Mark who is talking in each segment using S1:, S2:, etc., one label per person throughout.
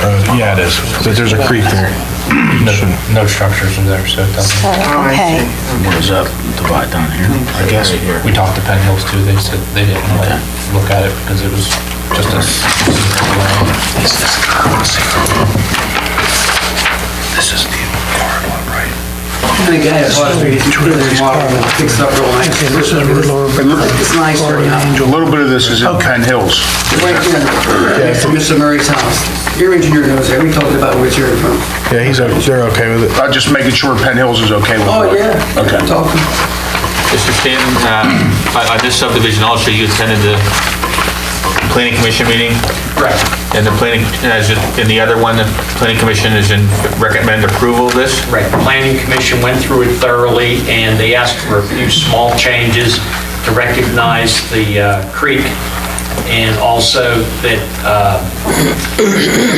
S1: Uh, Yeah, it is, but there's a creek there.
S2: No- No structures in there, so it
S3: Oh,
S2: doesn't.
S3: Okay.
S4: What is that divide down here? I guess.
S2: We talked to Penn Hills too, they said they didn't want to look at it because it was just a. s-
S4: This is the hard one, right?
S5: And again, it was, we really modeled and fixed up real nice. This is- It's nice right now.
S4: A little bit of this is in Penn Hills.
S5: Right here, next to Mr. Murray's house. Your engineer knows that, we talked about where it's here from.
S1: Yeah, he's, o- they're okay with it.
S4: I'm just making sure Penn Hills is okay with it.
S5: Oh, yeah.
S4: Okay.
S5: Talking.
S6: Mr. Stanton, uh, on- on this subdivision also, you attended the planning commission meeting?
S2: Right.
S6: And the planning, uh, as in in the other one, the planning commission is in recommend approval of this?
S7: Right, the planning commission went through it thoroughly, and they asked for a few small changes to recognize the uh, creek, and also that uh,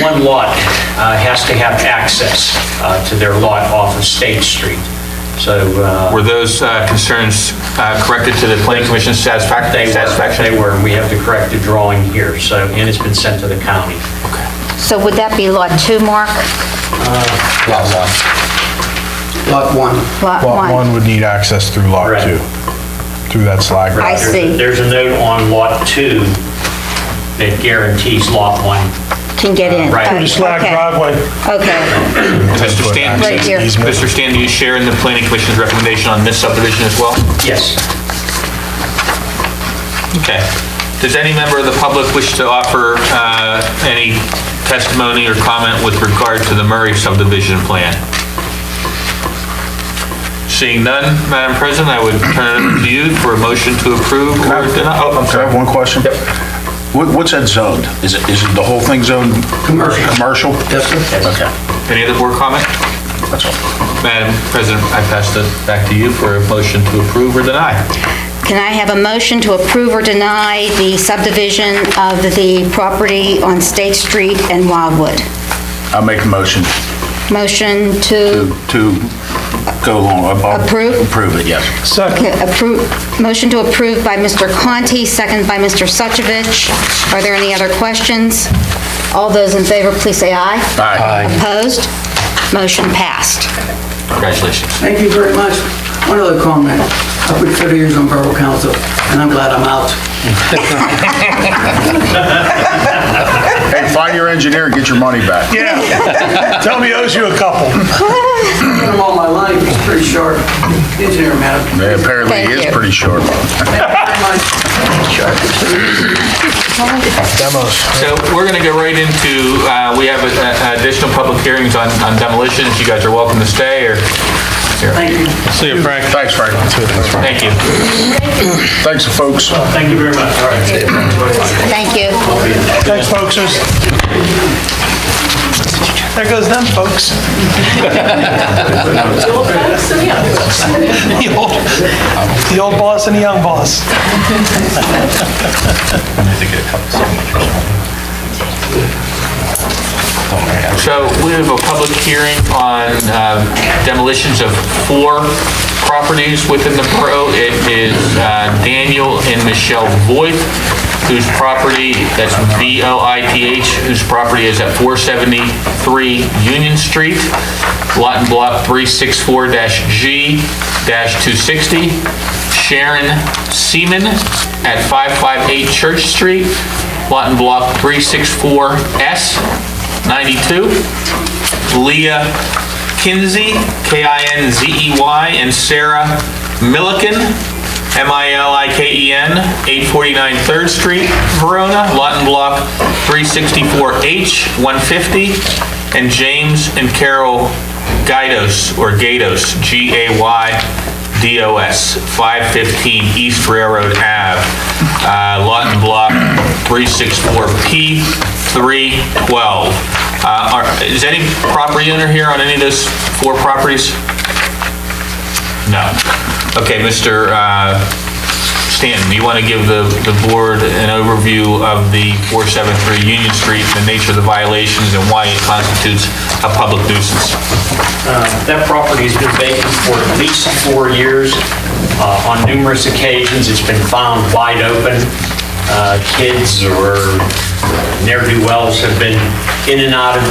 S7: one lot uh, has to have access uh, to their lot off of State Street. So uh,
S6: Were those uh, concerns uh, corrected to the planning commission's satisfac-
S7: they were,
S6: satisfaction?
S7: they were, and we have the corrected drawing here, so, and it's been sent to the county.
S3: So would that be lot two, Mark?
S2: Lot one.
S5: Lot one.
S3: Lot
S1: Lot
S3: one?
S1: one would need access through lot
S7: Right.
S1: two, through that slag.
S3: I
S1: road.
S3: see.
S7: There's a note on lot two that guarantees lot one
S3: Can get in?
S7: Right.
S3: Oh,
S7: Through the
S3: okay. Okay,
S6: Mr. Stanton?
S3: Right here.
S1: Easement.
S6: Mr. Stanton, do you share in the planning commission's recommendation on this subdivision as well?
S7: Yes.
S6: Okay. Does any member of the public wish to offer uh, any testimony or comment with regard to the Murray subdivision plan? Seeing none, Madam President, I would turn it over to you for a motion to approve or deny. Oh, I'm
S4: Can I have
S6: sorry.
S4: one question? Yep. What, what's that zoned? Is it, is it the whole thing zoned?
S5: Commercial.
S4: Commercial?
S5: Yes, sir.
S4: Okay,
S6: Any other board comment?
S4: that's all.
S6: Madam President, I pass it back to you for a motion to approve or deny.
S3: can I have a motion to approve or deny the subdivision of the property on State Street and Wildwood?
S4: I'll make a motion
S3: Motion to
S4: to, to go along. I'll-
S3: Approve?
S4: Approve it, yes.
S3: approve, motion to approve by Mr. Conti, second by Mr. Suchovich. Are there any other questions? All those in favor, please say aye.
S4: Aye.
S3: Opposed? Motion passed.
S6: Congratulations.
S5: Thank you very much. One other comment. I've been 30 years on Borough Council, and I'm glad I'm out.
S4: Hey, find your engineer and get your money back.
S1: Yeah, tell me he owes you a couple.
S5: I've been all my life, it's pretty short. Engineer, madam.
S4: Yeah, Apparently,
S3: Thank
S4: he is
S3: you.
S4: pretty short.
S1: Demos.
S6: So we're going to go right into, uh, we have uh, additional public hearings on on demolition. If you guys are welcome to stay or...
S5: Thank you.
S6: See you, Frank.
S4: Thanks, Frank.
S6: Thank you.
S4: Thanks, folks.
S7: Thank you very much. All right.
S3: Thank you.
S8: Thanks, folks. There goes them, folks. The old The old boss and the young boss.
S6: So we have a public hearing on um, demolitions of four properties within the borough. It is uh, Daniel and Michelle Voigt, whose property, that's V-O-I-T-H, whose property is at 473 Union Street, lot and block 364-G-260. Sharon Seaman at 558 Church Street, lot and block 364S92. Leah Kinsey, K-I-N-Z-E-Y, E and Sarah Milliken, M-I-L-I-K-E-N, 849 3rd Street, Verona, lot and block 364H150. And James and Carol Gaidos, or Gatos, G-A-Y DOS, 515 East Railroad Ave, uh, lot and block 364P312. Uh, are- Is any property owner here on any of those four properties? No. Okay, Mr. uh, Stanton, do you want to give the the board an overview of the 473 Union Street, the nature of the violations, and why it constitutes a public nuisance?
S7: That property's been vacant for at least four years. Uh, On numerous occasions, it's been found wide open. Uh, Kids or ne'er-do-wells have been in and out of